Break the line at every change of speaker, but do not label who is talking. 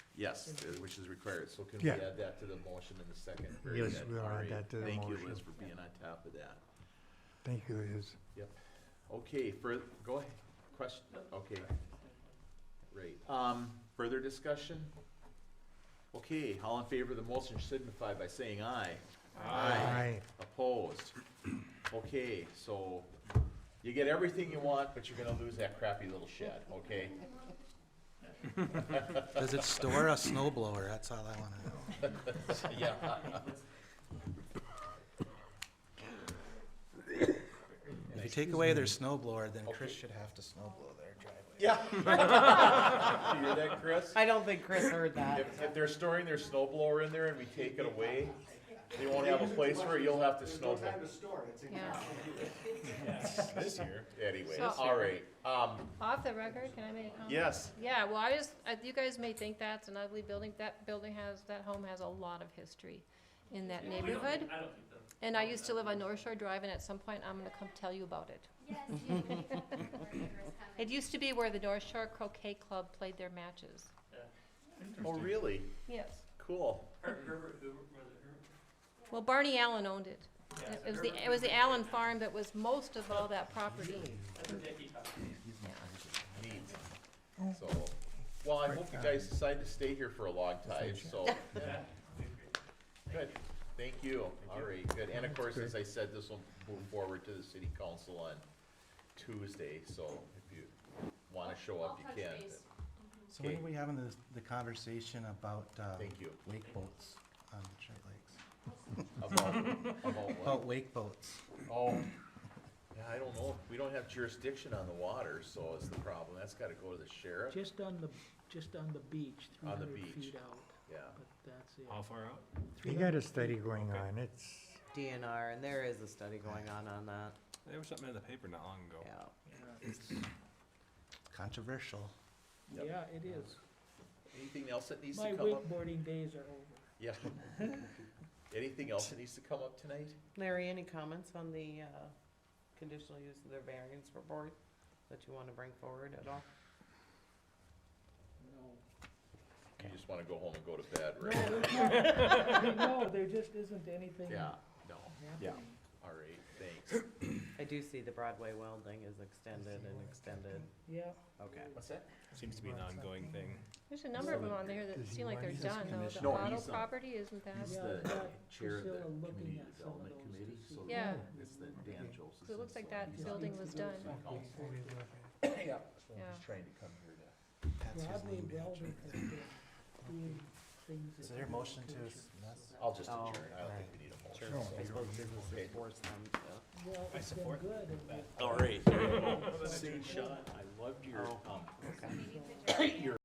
Yes, uh, which is required, so can we
Yeah.
add that to the motion in the second? Very
Yes,
good.
we'll add
All right.
that to the
Thank you,
motion.
Liz, for being on top of that.
Thank you, Liz.
Okay, for, go ahead, question, okay. Right, um, further discussion? Okay, all in favor of the motion signify by saying aye. Opposed? Okay, so you get everything you want, but you're gonna lose that crappy little shed, okay?
Does it store a snow blower? That's all I wanna know.
Yeah.
If you take away their snow blower, then Chris should have to snow blow their driveway.
Yeah. You hear that, Chris?
I don't think Chris heard that.
If, if they're storing their snow blower in there and we take it away, they won't have a place for it, you'll have to snow blow.
Yeah,
This year. Anyway,
So-
all right, um,
off the record, can I make a comment?
yes, oh,
Yeah, well, I just, I- you guys may think that's an ugly building, that building has, that home has a lot of history in that neighborhood. And I used to live on North Shore Drive, and at some point, I'm gonna come tell you about it.
Yes, you have to come before neighbors come
It used to be where the North Shore Croquet Club played their matches.
oh, really?
Yes.
Cool.
Well, Barney Allen owned it. It was the, it was the Allen farm that was most of all that property.
Neat. So, well, I hope you guys decide to stay here for a long time, so. Good, thank you, all right, good, and of course, as I said, this will move forward to the city council on Tuesday, so if you wanna show up, you can.
So when
Okay.
are we having the, the conversation about, uh,
Thank you.
wake boats on the Detroit Lakes?
About, about what?
About wake boats.
Oh, yeah, I don't know, we don't have jurisdiction on the water, so is the problem, that's gotta go to the sheriff,
Just on the, just on the beach, three
On the
hundred
beach. Oh.
feet out,
yeah.
but that's it.
How far out?
You got a study going on, it's,
DNR, and there is a study going on on that,
There was something in the paper not long ago.
yeah.
Controversial.
Yep.
Yeah, it is.
Anything else that needs to
My
come up?
wakeboarding days are over.
Yeah. Anything else that needs to come up tonight?
Larry, any comments on the, uh, conditional use of their variance report that you wanna bring forward at all?
No.
You just wanna go home and go to bed, right?
No, there's not- no, there just isn't anything
Yeah, no,
happening.
all right, thanks.
I do see the Broadway welding is extended and extended,
Yeah,
okay.
What's that?
Seems to be an ongoing thing.
There's a number of them on there that
Does he
seem like
want
they're
his
done, though.
commission?
The
No,
auto
he's, um,
property, isn't that?
He's
Yeah,
the
but
chair of the
Priscilla looking
community
at some of
development
those to
committee,
see-
so
Yeah.
it's the Dan Joseph.
It looks like that building was done.
Yeah, so
Yeah.
he's trying to come here to.
That's his
Broadway
name,
welding has been doing things.
Is
that
there a
we
motion to
couldn't.
dismiss?
I'll just
Oh,
adjourn, I don't think
right.
we need a
Sure,
motion. so-
I suppose this is
Okay.
to force them to.
Well, it's been
support
good, and we-
All right, there you go. See, Sean, I loved your, um,
in. Maybe you could
your